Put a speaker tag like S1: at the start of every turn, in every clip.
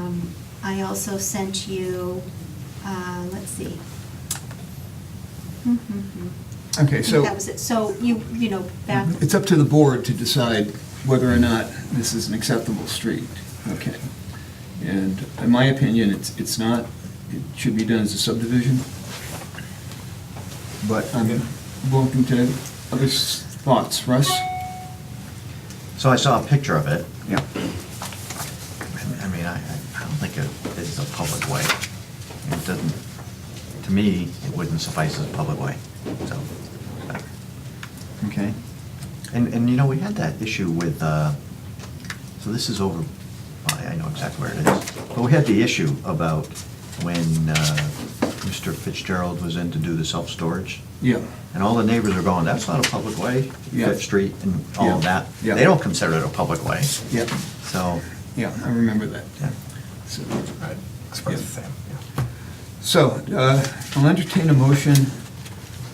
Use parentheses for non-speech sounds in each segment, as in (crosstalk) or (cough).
S1: Um, I also sent you, uh, let's see. Hmm, hmm, hmm. I
S2: Okay,
S1: think
S2: so
S1: That was it. So you, you know, back,
S2: it's up to the board to decide whether or not this is an acceptable street. Okay. And in my opinion, it's, it's not, it should be done as a subdivision. But I'm welcome to other s- thoughts. Russ?
S3: So I saw a picture of it.
S2: Yeah.
S3: I mean, I, I don't think it is a public way. It doesn't, to me, it wouldn't suffice as a public way, so.
S2: Okay.
S3: And, and you know, we had that issue with, uh, so this is over, I I know exactly where it is. But we had the issue about when uh, Mr. Fitzgerald was in to do the self-storage.
S2: Yeah.
S3: And all the neighbors are going, that's not a public way,
S2: Yeah.
S3: Fifth Street and all of
S2: Yeah.
S3: that.
S2: Yeah.
S3: They don't consider it a public way,
S2: Yeah,
S3: so.
S2: yeah, I remember that.
S3: Yeah.
S2: So-
S4: Right, it's about the same, yeah.
S2: So, uh, I'll entertain a motion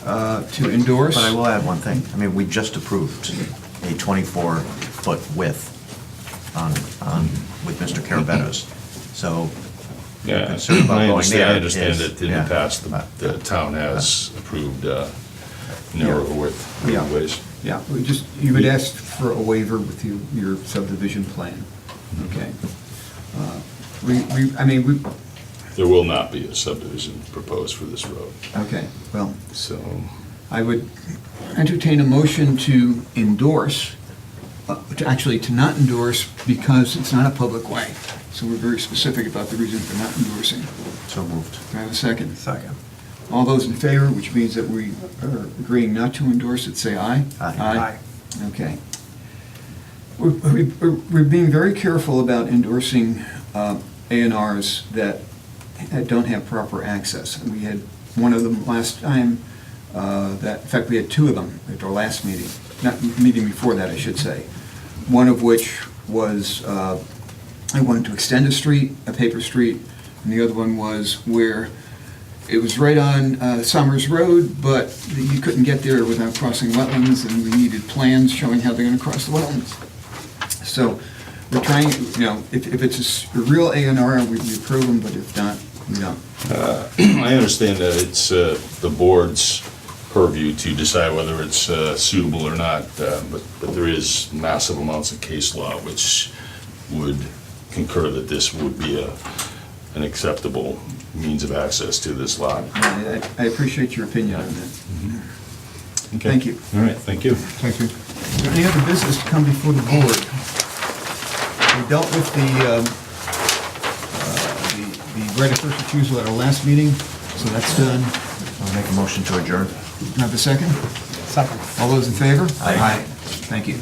S2: uh, to endorse.
S3: But I will add one thing. I mean, we just approved a 24-foot width on, on, with Mr. Caravetta's. So
S5: Yeah,
S3: concern about
S5: I
S3: going
S5: understand,
S3: there
S5: I understand
S3: is-
S5: that in the
S3: yeah.
S5: past, the- the town has approved uh, narrower width
S2: Yeah.
S5: ways.
S2: Yeah, we just, you would ask for a waiver with your, your subdivision plan, okay? Uh, We, we, I mean, we,
S5: There will not be a subdivision proposed for this road,
S2: okay, well,
S5: so
S2: I would entertain a motion to endorse, uh, to actually to not endorse because it's not a public way. So we're very specific about the reason for not endorsing.
S3: So moved.
S2: Do I have a second?
S3: Second.
S2: All those in favor, which means that we are agreeing not to endorse it, say aye.
S3: Aye.
S2: Okay. We're- We're we're being very careful about endorsing uh, A and Rs that that don't have proper access. We had one of them last time, uh, that, in fact, we had two of them at our last meeting, not meeting before that, I should say. One of which was, uh, I wanted to extend a street, a paper street, and the other one was where it was right on uh, Summers Road, but you couldn't get there without crossing wetlands, and we needed plans showing how they're gonna cross the wetlands. So we're trying, you know, if, if it's a s- a real A and R, we we approve them, but if not, we don't.
S5: (clears throat) I understand that it's uh, the board's purview to decide whether it's uh, suitable or not, uh, but but there is massive amounts of case law which would concur that this would be a an acceptable means of access to this lot.
S2: I I- I appreciate your opinion on that.
S5: Okay.
S2: Thank you.
S5: All right, thank you.
S2: Thank you. Is there any other business to come before the board? We dealt with the, um, uh, the the right of first refusal at our last meeting, so that's done.
S3: I'll make a motion to adjourn.
S2: Can I have a second? Second. All those in favor?
S3: Aye.
S2: Thank you.